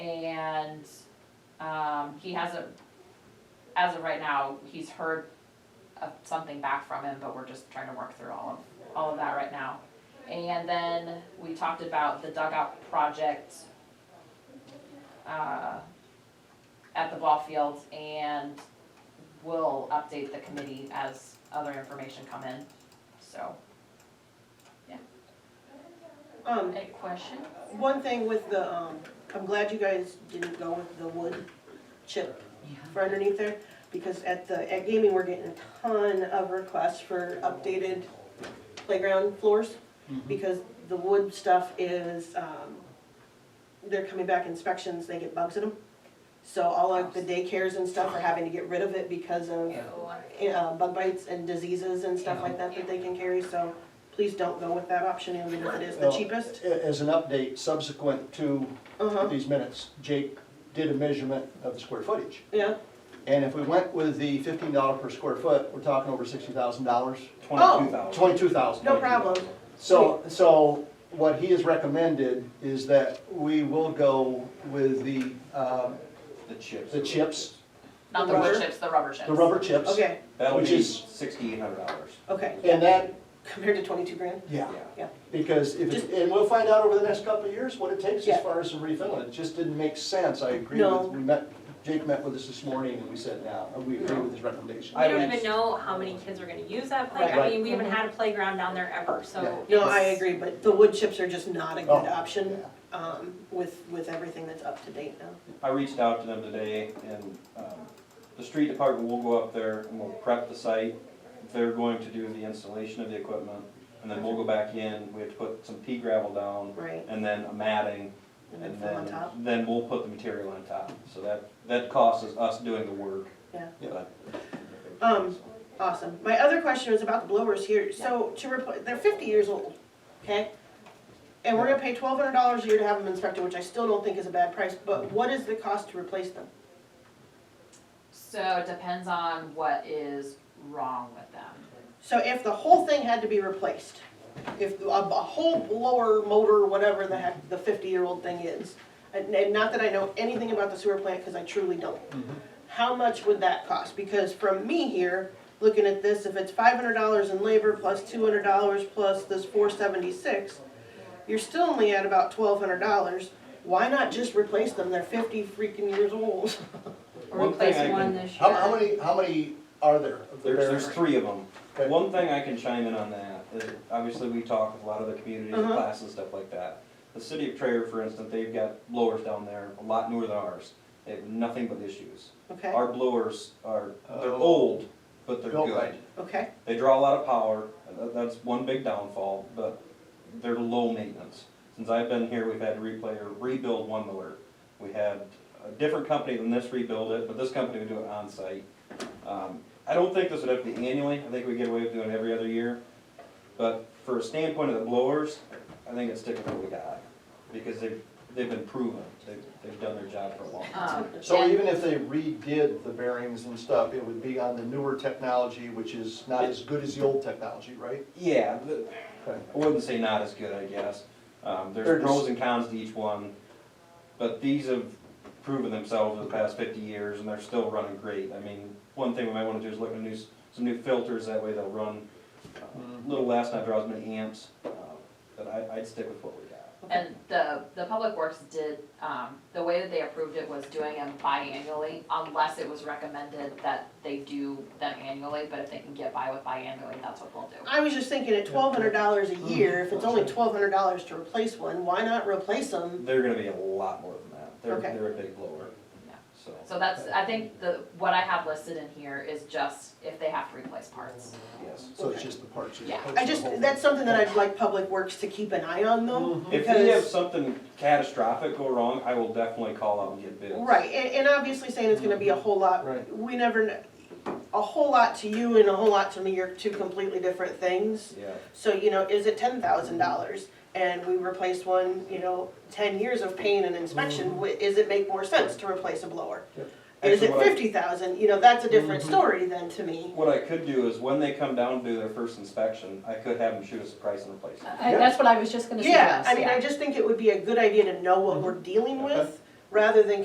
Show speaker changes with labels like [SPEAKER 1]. [SPEAKER 1] and, um, he hasn't, as of right now, he's heard of something back from him, but we're just trying to work through all of, all of that right now. And then we talked about the dugout project, uh, at the ball field, and we'll update the committee as other information come in, so.
[SPEAKER 2] Um,
[SPEAKER 1] Any questions?
[SPEAKER 2] one thing with the, um, I'm glad you guys didn't go with the wood chip for underneath there, because at the, at gaming, we're getting a ton of requests for updated playground floors, because the wood stuff is, um, they're coming back inspections, they get bugs in them. So all like the daycares and stuff are having to get rid of it because of uh, bug bites and diseases and stuff like that that they can carry, so please don't go with that option, even if it is the
[SPEAKER 3] Well,
[SPEAKER 2] cheapest.
[SPEAKER 3] a- As an update subsequent to
[SPEAKER 2] Uh-huh,
[SPEAKER 3] these minutes, Jake did a measurement of the square footage.
[SPEAKER 2] yeah,
[SPEAKER 3] And if we went with the fifteen dollar per square foot, we're talking over sixty thousand dollars,
[SPEAKER 4] Twenty-two thousand.
[SPEAKER 3] Oh, twenty-two thousand.
[SPEAKER 2] no problem.
[SPEAKER 3] So, so what he has recommended is that we will go with the, um,
[SPEAKER 4] The chips.
[SPEAKER 3] the chips,
[SPEAKER 1] Not the wood chips, the rubber chips.
[SPEAKER 3] the rubber chips.
[SPEAKER 2] Okay,
[SPEAKER 4] That'll
[SPEAKER 3] Which
[SPEAKER 4] be
[SPEAKER 3] is-
[SPEAKER 4] sixty-eight hundred dollars.
[SPEAKER 2] okay,
[SPEAKER 3] And that,
[SPEAKER 2] compared to twenty-two grand?
[SPEAKER 3] yeah,
[SPEAKER 2] Yeah.
[SPEAKER 3] because if, it's- and we'll find out over the next couple of years what it takes as
[SPEAKER 2] Yeah.
[SPEAKER 3] far as the refilling. It just didn't make sense. I agree
[SPEAKER 2] No.
[SPEAKER 3] with, we met, Jake met with us this morning and we said, now, we agree with his recommendation.
[SPEAKER 5] We don't even know how many kids are gonna use that playground, I
[SPEAKER 3] Right.
[SPEAKER 5] mean, we haven't had a playground down there ever, so.
[SPEAKER 2] No, I
[SPEAKER 5] it's-
[SPEAKER 2] agree, but the wood chips are just not a good
[SPEAKER 3] Oh,
[SPEAKER 2] option,
[SPEAKER 3] yeah.
[SPEAKER 2] um, with, with everything that's up to date now.
[SPEAKER 4] I reached out to them today and, um, the street department will go up there and we'll prep the site. They're going to do the installation of the equipment and then we'll go back in, we have to put some pea gravel down
[SPEAKER 2] Right,
[SPEAKER 4] and then a matting
[SPEAKER 2] and then
[SPEAKER 4] and
[SPEAKER 2] fill on
[SPEAKER 4] then,
[SPEAKER 2] top,
[SPEAKER 4] then we'll put the material on top. So that, that costs us us doing the work.
[SPEAKER 2] yeah.
[SPEAKER 4] but-
[SPEAKER 2] Um, Awesome. My other question was about the blowers here. So to repl they're fifty years old, okay? And we're gonna pay twelve hundred dollars a year to have them inspected, which I still don't think is a bad price, but what is the cost to replace them?
[SPEAKER 1] So it depends on what is wrong with them.
[SPEAKER 2] So if the whole thing had to be replaced, if a, a whole blower motor, whatever the heck the fifty-year-old thing is, and, and not that I know anything about the sewer plant, cause I truly don't. How much would that cost? Because from me here, looking at this, if it's five hundred dollars in labor plus two hundred dollars plus this four seventy-six, you're still only at about twelve hundred dollars. Why not just replace them? They're fifty freaking years old.
[SPEAKER 5] Or
[SPEAKER 4] One thing I
[SPEAKER 5] replace
[SPEAKER 4] can-
[SPEAKER 5] one this year.
[SPEAKER 3] How, how many, how many are there? of the
[SPEAKER 4] There's,
[SPEAKER 3] various-
[SPEAKER 4] there's three of them.
[SPEAKER 3] Okay.
[SPEAKER 4] One thing I can chime in on that is, obviously, we talk with a lot of the communities, and
[SPEAKER 2] Uh-huh.
[SPEAKER 4] classes, and stuff like that. The city of Traer, for instance, they've got blowers down there, a lot newer than ours. They have nothing but issues.
[SPEAKER 2] Okay,
[SPEAKER 4] Our blowers are, they're
[SPEAKER 3] Oh.
[SPEAKER 4] old, but they're
[SPEAKER 3] Built
[SPEAKER 4] good.
[SPEAKER 3] right.
[SPEAKER 2] okay,
[SPEAKER 4] They draw a lot of power, and tha- that's one big downfall, but they're low maintenance. Since I've been here, we've had to replay or rebuild one motor. We had a different company than this rebuild it, but this company would do it on-site. Um, I don't think this would have to be annually, I think we get away with doing it every other year. But for a standpoint of the blowers, I think it's sticking with what we got, because they've, they've been proven, they've, they've done their job for a long time.
[SPEAKER 1] Um,
[SPEAKER 3] So
[SPEAKER 1] and-
[SPEAKER 3] even if they redid the bearings and stuff, it would be on the newer technology, which is not as good as the old technology, right?
[SPEAKER 4] Yeah, the-
[SPEAKER 3] Okay.
[SPEAKER 4] I wouldn't say not as good, I guess. Um,
[SPEAKER 3] They're
[SPEAKER 4] there's
[SPEAKER 3] just-
[SPEAKER 4] pros and cons to each one, but these have proven themselves in the past fifty years, and they're still running great. I mean, one thing we might wanna do is look at new, s- some new filters, that way they'll run uh, a little less, not draw as many amps. uh, But I, I'd stick with what we got.
[SPEAKER 1] And the, the Public Works did, um, the way that they approved it was doing them biannually, unless it was recommended that they do them annually, but if they can get by with biannually, that's what they'll do.
[SPEAKER 2] I was just thinking at twelve hundred dollars a year, if it's only twelve hundred dollars to replace one, why not replace them?
[SPEAKER 4] They're gonna be a lot more than that. They're,
[SPEAKER 2] Okay.
[SPEAKER 4] they're a big blower,
[SPEAKER 1] Yeah.
[SPEAKER 4] so.
[SPEAKER 1] So that's, I think the, what I have listed in here is just if they have to replace parts.
[SPEAKER 4] Yes.
[SPEAKER 3] So it's
[SPEAKER 2] Okay.
[SPEAKER 3] just the parts. it's
[SPEAKER 1] Yeah.
[SPEAKER 3] parts
[SPEAKER 2] I
[SPEAKER 3] of the
[SPEAKER 2] just,
[SPEAKER 3] whole thing.
[SPEAKER 2] that's something that I'd like Public Works to keep an eye on though,
[SPEAKER 3] Mhm.
[SPEAKER 4] Mm-hmm. If we have
[SPEAKER 2] because,
[SPEAKER 4] something catastrophic go wrong, I will definitely call out and get bids.
[SPEAKER 2] right, and, and obviously saying it's gonna be a whole lot.
[SPEAKER 3] Right.
[SPEAKER 2] We never, kn- a whole lot to you and a whole lot to me are two completely different things.
[SPEAKER 4] Yeah.
[SPEAKER 2] So, you know, is it ten thousand dollars and we replace one, you know, ten years of pain and inspection, wh- is it make more sense to replace a blower?
[SPEAKER 3] Yep.
[SPEAKER 2] Is
[SPEAKER 4] Actually,
[SPEAKER 2] it
[SPEAKER 4] what I-
[SPEAKER 2] fifty thousand, you know, that's a different story then to me.
[SPEAKER 4] What I could do is when they come down to do their first inspection, I could have them shoot us a price and replace it.
[SPEAKER 5] I- That's what I was just gonna
[SPEAKER 2] Yeah,
[SPEAKER 5] suggest,
[SPEAKER 2] I mean, I just think it would be a good idea to know what we're dealing with, rather than